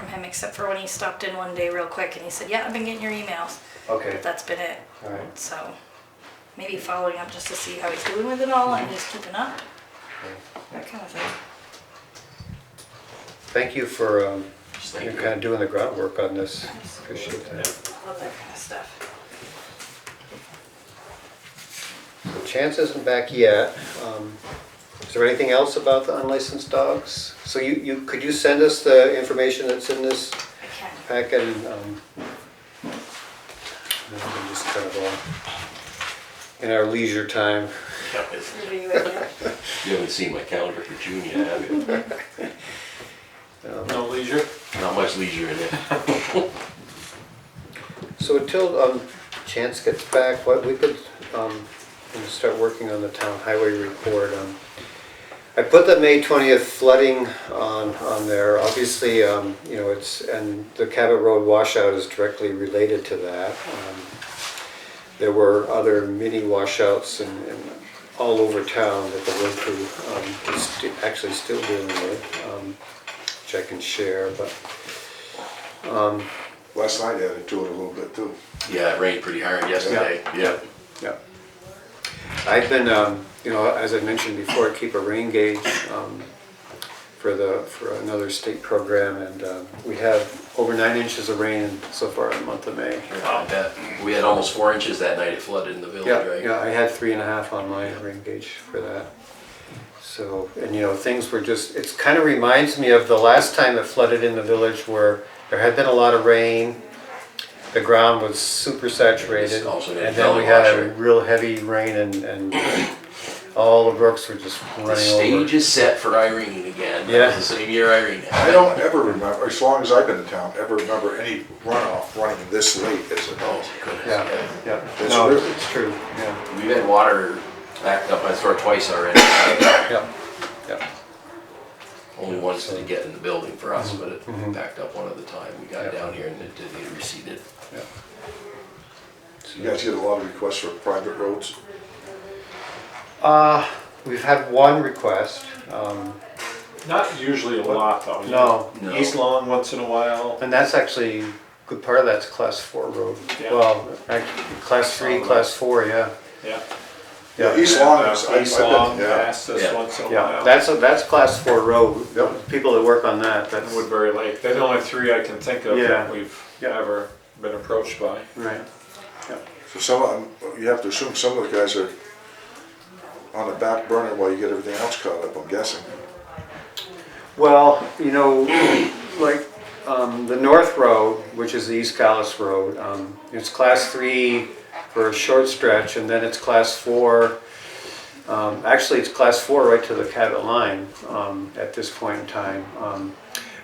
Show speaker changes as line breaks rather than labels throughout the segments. him except for when he stopped in one day real quick and he said, "Yeah, I've been getting your emails."
Okay,
But that's been it.
all right.
So maybe following up just to see how he's doing with it all and just keeping up,
okay.
that kind of thing.
Thank you for, um,
Thank
you're
you.
kind of doing the groundwork on this. Appreciate that.
Love that kind of stuff.
Chance isn't back yet. Um, Is there anything else about the unlicensed dogs? So you, you, could you send us the information that's in this
I can.
packet? and, um, and then just kind of, uh, In our leisure time.
Review it, yeah.
You haven't seen my calendar for June yet, have you?
No leisure?
Not much leisure in it.
So until um, Chance gets back, what we could um, we can start working on the town highway report. um, I put the May 20th flooding on, on there. Obviously, um, you know, it's, and the Cabot Road washout is directly related to that. Um, There were other mini washouts and, and all over town that the road crew um, is sti- actually still dealing with, um, which I can share, but
Last night added to it a little bit too.
Yeah, it rained pretty hard yesterday, yeah.
Yeah. I've been, um, you know, as I mentioned before, I keep a rain gauge, um, for the, for another state program and, um, we have over nine inches of rain so far in the month of May.
Oh, I bet. We had almost four inches that night, it flooded in the village,
Yeah,
right?
yeah, I had three and a half on my rain gauge for that. So, and you know, things were just, it's kind of reminds me of the last time it flooded in the village where there had been a lot of rain. The ground was super saturated
It's also
and then we had a
washer.
real heavy rain and, and all the brooks were just
The
running over.
stage is set for Irene again.
Yeah.
It's The same year Irene
I
had.
don't ever remember, as long as I've been in town, ever remember any runoff running this late as it
Oh,
does.
goodness.
Yeah,
yeah.
yeah,
That's
no,
true.
it's true, yeah,
We've had water backed up my store twice already.
yeah, yeah.
Only once did it get in the building for us, but it backed up one other time. We got down here and it did, it receded.
You guys get a lot of requests for private roads.
Uh, we've had one request, um,
Not usually a lot though.
no,
No.
East Long once in a while.
And that's actually, good part of that's class four road.
Yeah.
Well, actually, class three, class four, yeah.
Yeah.
Yeah,
East Long is, I- I've
East Long,
been, yeah.
Vastus
Yeah.
once in a
yeah,
while.
that's, a- that's class four road. People that work on that, that's,
And Woodbury Lake. They're the only three I can think of
Yeah.
that we've
Yeah.
ever been approached by.
right.
So some of them, you have to assume some of the guys are on the back burner while you get everything else caught up, I'm guessing.
Well, you know, like, um, the North Road, which is the East Callis Road, um, it's class three for a short stretch, and then it's class four. Um, actually, it's class four right to the Cabot line, um, at this point in time. Um,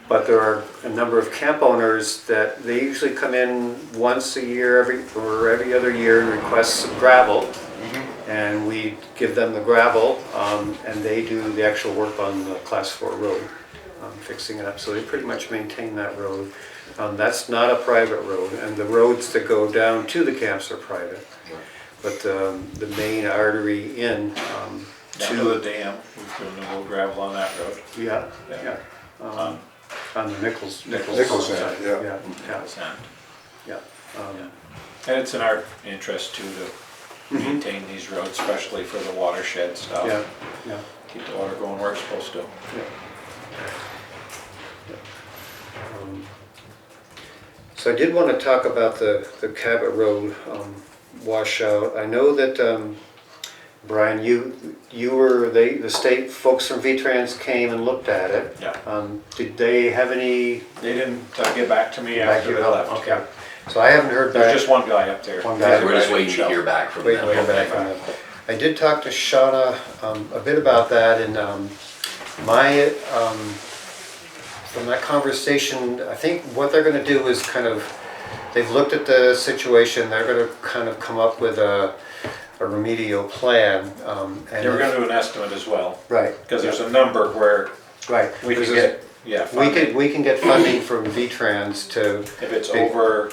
but there are a number of camp owners that, they usually come in once a year, every, or every other year and request some gravel. And we give them the gravel, um, and they do the actual work on the class four road, um, fixing it up. So they pretty much maintain that road. Um, that's not a private road, and the roads that go down to the camps are private. But, um, the main artery in, um,
Down
to
to the dam. We've driven a little gravel on that road.
yeah,
Yeah.
yeah. Um, On the Nichols.
Nichols
side,
end, yeah.
Yeah, yeah,
It's not-
yeah. Um,
And it's in our interest too to maintain these roads, especially for the watershed stuff.
Mm-hmm. Yeah, yeah,
Keep the water going where it's supposed to.
yeah. Um, So I did want to talk about the, the Cabot Road um, washout. I know that, um, Brian, you, you were, they, the state folks from V-Trans came and looked at it.
Yeah.
Um, Did they have any?
They didn't uh, get back to me after they left.
Okay. So I haven't heard back.
There's just one guy up there.
One guy.
We're just waiting to hear back from
Wait,
them.
wait a minute. I did talk to Shauna um, a bit about that, and um, my, um, from that conversation, I think what they're gonna do is kind of, they've looked at the situation, they're gonna kind of come up with a a remedial plan. um, and-
They were gonna do an estimate as well,
Right.
because there's a number where
Right.
we
There's
can
this-
get, yeah,
We could,
funding.
we can get funding from V-Trans to.
If it's over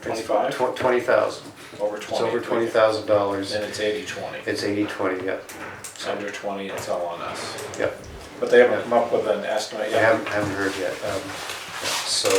twenty-five,
Twenty thousand.
over
It's
twenty.
over twenty thousand dollars.
Then it's eighty-twenty.
It's eighty, twenty, yeah,
It's under twenty, it's all on us.
yeah.
But they haven't
Yeah.
come up with an estimate
I
yet.
haven't, haven't heard yet. um, So,